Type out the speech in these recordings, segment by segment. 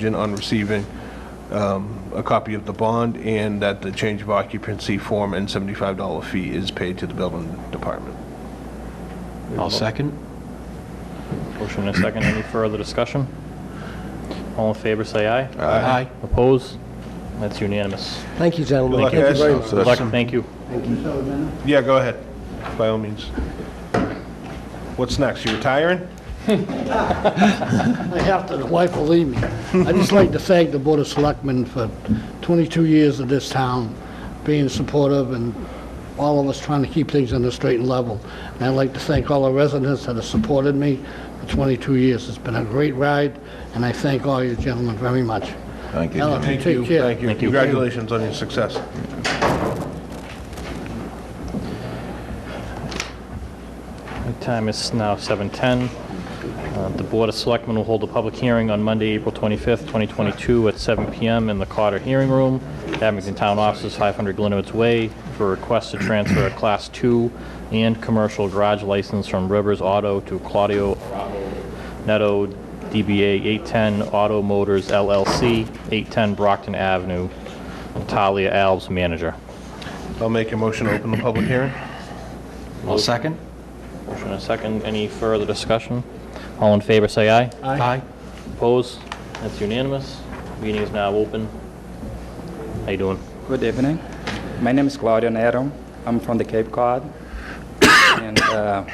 contingent on receiving um, a copy of the bond and that the change of occupancy form and $75 fee is paid to the building department. I'll second. Motion and a second. Any further discussion? All in favor, say aye. Aye. Oppose? That's unanimous. Thank you, gentlemen. Good luck, Thank you very guys. much. Good luck, thank you. Yeah, go ahead, by all means. What's next? You retiring? I have to, the wife will leave me. I'd just like to thank the Board of Selectmen for 22 years of this town being supportive and all of us trying to keep things on the straight and level. And I'd like to thank all the residents that have supported me for 22 years. It's been a great ride, and I thank all you gentlemen very much. Thank you. Ellen, Jimmy. Uh, take care. Thank you. Thank you. Congratulations on your success. The time is now 7:10. Uh, The Board of Selectmen will hold a public hearing on Monday, April 25th, 2022, at 7 PM in the Carter Hearing Room, Abington Town Offices, 500 Glenwood's Way, for a request to transfer a Class 2 and commercial garage license from Rivers Auto to Claudio Netto, DBA 810 Auto Motors LLC, 810 Brockton Avenue, Talia Alves, manager. I'll make a motion to open the public hearing. I'll second. Motion and a second. Any further discussion? All in favor, say aye. Aye. Opposed? That's unanimous. Meeting is now open. How you doing? Good evening. My name is Claudio Nero. I'm from the Cape Cod. and uh,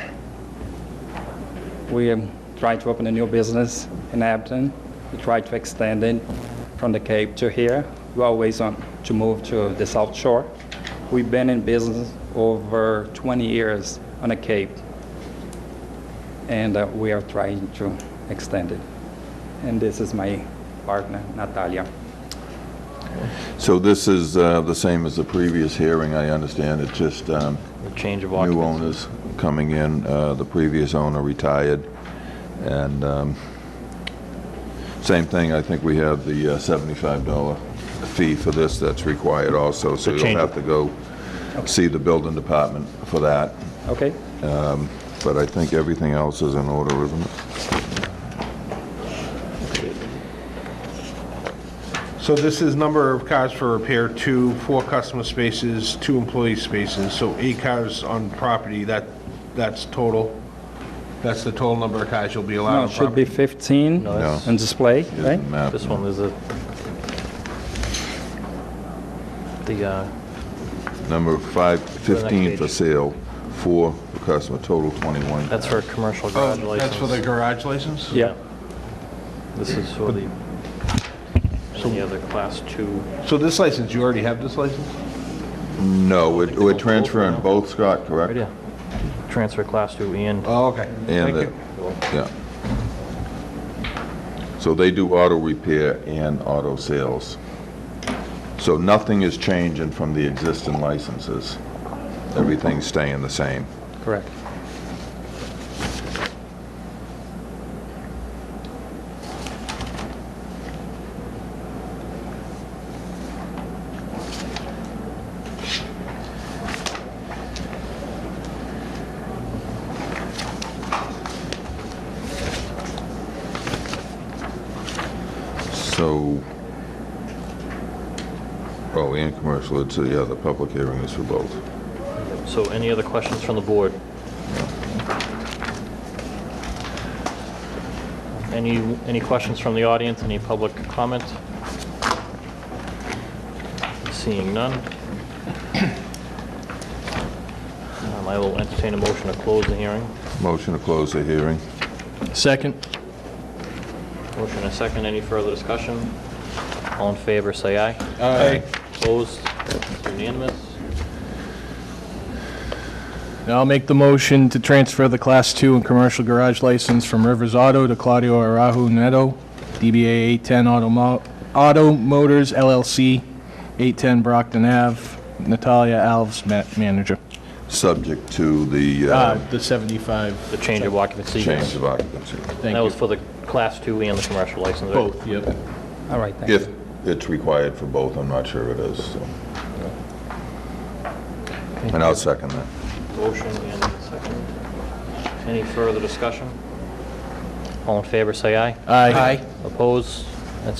we um, try to open a new business in Abington. We try to extend it from the Cape to here. We always want to move to the South Shore. We've been in business over 20 years on the Cape, and uh, we are trying to extend it. And this is my partner, Natalia. So this is uh, the same as the previous hearing, I understand. It's just um, Change of new occupancy. owners coming in. Uh, The previous owner retired, and um, same thing, I think we have the uh, $75 fee for this that's required also, so you'll change- have to go see the building department for that. Okay? But I think everything else is in order, isn't it? So this is number of cars for repair, two, four customer spaces, two employee spaces, so eight cars on property, that, that's total. That's the total number of cars you'll be allowed No, on it should be property. 15 No. on display, right? Isn't that- This one is a, the, uh, Number five, next 15 for page. sale, four for customer, total 21. that's for a commercial garage Oh, license. That's for the garage license? Yeah. This is for the, and the other class two. So this license, you already have this license? No, we're we're transferring both, Scott, correct? Right, yeah. Transfer class two and Oh, okay. Thank And, the- you. yeah. So they do auto repair and auto sales. So nothing is changing from the existing licenses. Everything's staying the same. Correct. So, oh, and commercial, it's, yeah, the public hearing is for both. So any other questions from the board? Any, any questions from the audience, any public comment? Seeing none. Um, I will entertain a motion to close the hearing. Motion to close the hearing. Second. Motion and a second, any further discussion? All in favor, say aye. Aye. Opposed? Unanimous? Now I'll make the motion to transfer the Class 2 and commercial garage license from Rivers Auto to Claudio Arahu Neto, DBA 810 Auto Mo- Auto Motors LLC, 810 Brockton Ave, Natalia Alves, ma- manager. Subject to the Uh, uh, The 75, The change of occupancy. change of occupancy, thank That was you. for the Class 2 and the commercial license, right? Both, yep. All right, thank you. if it's required for both, I'm not sure it is, so. And I'll second that. Motion and a second. Any further discussion? All in favor, say aye. Aye. Oppose?